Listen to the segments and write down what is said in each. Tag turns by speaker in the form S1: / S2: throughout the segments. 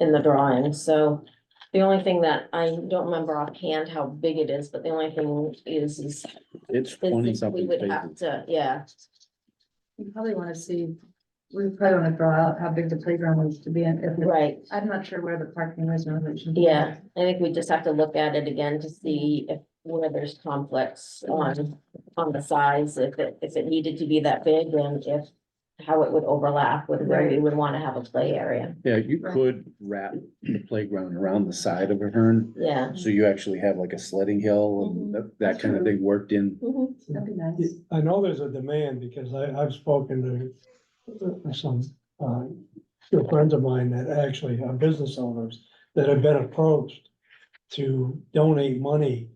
S1: in the drawing, so. The only thing that I don't remember offhand how big it is, but the only thing is, is,
S2: It's twenty
S1: is that we
S2: something
S1: would have
S2: pages.
S1: to, yeah.
S3: You probably wanna see, we probably wanna draw out how big the playground was to be in. if it-
S1: Right,
S3: I'm not sure where the parking was. no, it should be.
S1: yeah, I think we just have to look at it again to see if, where there's conflicts on, on the size, if it, if it needed to be that big, and if. How it would overlap with where we would wanna have a play area,
S2: Yeah, you
S3: Right.
S2: could wrap the playground around the side of a hern,
S1: yeah.
S2: so you actually have like a sledding hill
S1: Mhm.
S2: and that, that kind of thing worked in.
S1: Mhm.
S3: That'd be
S4: Yeah,
S3: nice.
S4: I know there's a demand because I, I've spoken to uh, some, uh, few friends of mine that actually are business owners that have been approached to donate money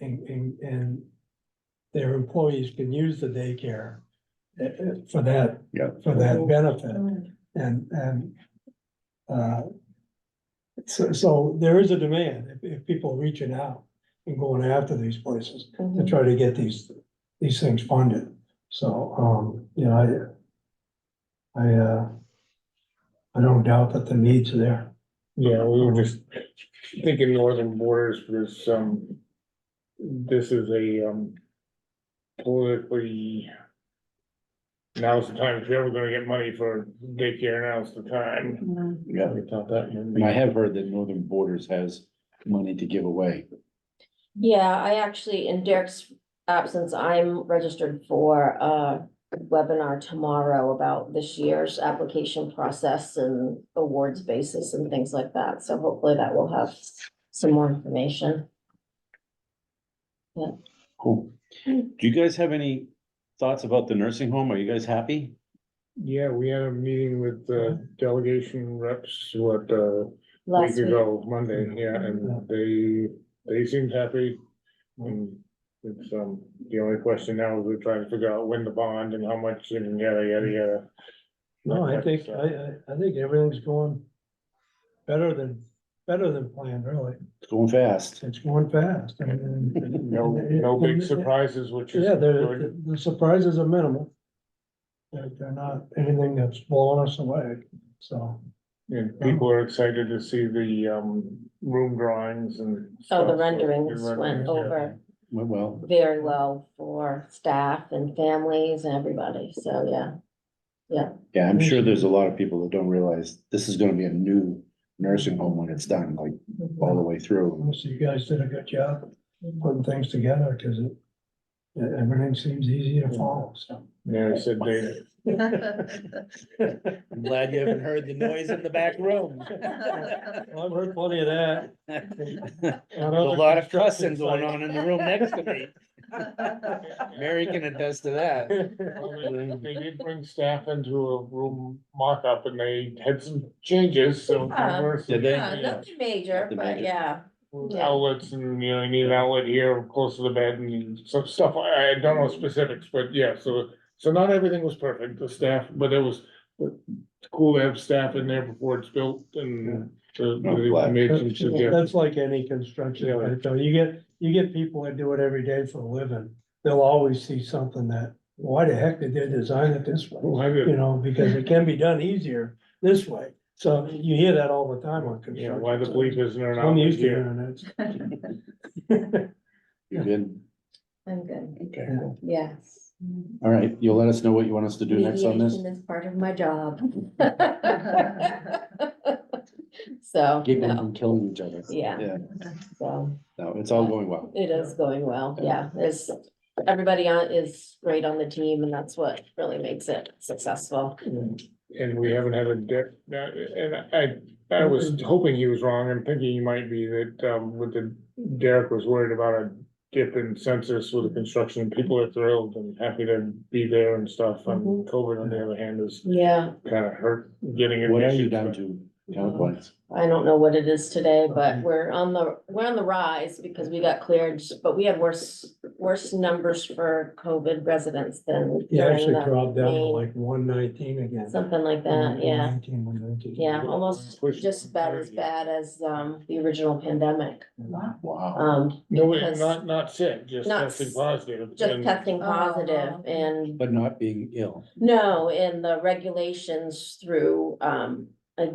S4: and, and, and their employees can use the daycare uh, uh, for that,
S2: Yeah.
S4: for that benefit.
S3: Mm,
S4: And, and, uh, so, so there is a demand if, if people reaching out and going after these places
S1: Mm-hmm.
S4: to try to get these, these things funded. So, um, you know, I, I, uh, I don't doubt that the needs are there.
S5: Yeah, we were just thinking northern borders for this, um, this is a, um, politically, now's the time, if you're ever gonna get money for daycare, now's the time.
S3: mm.
S2: Yeah,
S5: We thought that might
S2: and I
S5: be-
S2: have heard that Northern Borders has money to give away.
S1: Yeah, I actually, in Derek's absence, I'm registered for a webinar tomorrow about this year's application process and awards basis and things like that. So hopefully that will have some more information.
S2: Cool.
S1: Hmm.
S2: Do you guys have any thoughts about the nursing home? Are you guys happy?
S5: Yeah, we had a meeting with the delegation reps, what, uh,
S1: Last
S5: week
S1: week,
S5: ago, Monday, yeah, and they, they seemed happy. And it's, um, the only question now is we're trying to figure out when the bond and how much and yada, yada, yada. uh,
S4: No, I think, I, I, I think everything's going better than, better than planned, really.
S2: It's going fast.
S4: It's going fast. and- and-
S5: No, no big surprises, which is
S4: Yeah, the,
S5: good.
S4: the surprises are minimal. They're, they're not anything that's blowing us away, so.
S5: And people are excited to see the, um, room drawings and.
S1: oh,
S5: stuff,
S1: the
S5: so-
S1: renderings
S5: the
S1: went
S5: renderings, yeah.
S1: over
S2: Went well.
S1: very well for staff and families and everybody. So, yeah.
S2: Yeah, I'm
S1: Mm-hmm.
S2: sure there's a lot of people that don't realize this is gonna be a new nursing home when it's done, like all the way through.
S4: Most of you guys did a good job putting things together, cause it, e- everything seems easy to follow, so.
S5: Yeah, I said they,
S2: I'm glad you haven't heard the noise in the back room.
S4: I've heard plenty of that.
S2: in the room next to me. Mary can attest to that.
S5: they did bring staff into a room mock-up and they had some changes, so.
S1: Yeah.
S5: there were some-
S2: Did they?
S1: Ah, Yeah, Uh, Nothing major,
S2: Nothing
S1: but
S2: major.
S1: yeah, Yeah.
S5: outlets and, you know, you need an outlet here close to the bed and some stuff. I, I don't know specifics, but yeah, so. So not everything was perfect, the staff, but it was cool to have staff in there before it's built and. so they made some suggestions.
S4: That's like any construction, right? So you get, you get people that do it every day for a living, they'll always see something that, why the heck did they design it this way?
S5: Oh, I
S4: You
S5: did.
S4: know, because it can be done easier this way, so you hear that all the time on
S5: Yeah,
S4: construction.
S5: why the bleep isn't there an
S4: I'm
S5: outlet
S4: used to
S5: here?
S4: hearing it.
S2: You good?
S1: I'm good.
S2: Okay,
S1: Yes.
S2: all right, you'll let us know what you want us to do next on this?
S1: Mediation is part of my job. So,
S2: Giggling
S1: no,
S2: and killing each other.
S1: Yeah.
S2: Yeah,
S1: so
S2: no, it's all going well.
S1: it is going well, yeah, there's, everybody on is great on the team and that's what really makes it successful.
S5: And we haven't had a debt, and I, I was hoping he was wrong, I'm thinking he might be that, um, with the, Derek was worried about a dip in census with the construction, people are thrilled and happy to be there and stuff, and
S1: Mhm.
S5: COVID on the other hand is
S1: Yeah,
S5: kind of hurt getting.
S2: What are you
S5: admissions,
S2: down
S5: but-
S2: to, count points?
S1: I don't know what it is today,
S2: Mm-hmm.
S1: but we're on the, we're on the rise because we got cleared, but we had worse, worse numbers for COVID residents than
S4: Yeah,
S1: during
S4: actually
S1: the,
S4: dropped down to
S1: main-
S4: like one nineteen again.
S1: something like that, yeah.
S4: 119, 119.
S2: Mm-hmm.
S1: Yeah, almost
S5: Push
S1: just about as
S5: 130.
S1: bad as um the original pandemic.
S3: Wow.
S2: Wow,
S1: Um,
S5: No, wait,
S1: because
S5: not, not sick, just
S1: Not
S5: testing
S1: s-
S5: positive.
S1: just
S5: and-
S1: testing positive
S3: Oh.
S1: and
S2: but not being ill.
S1: no, and the regulations through um. uh,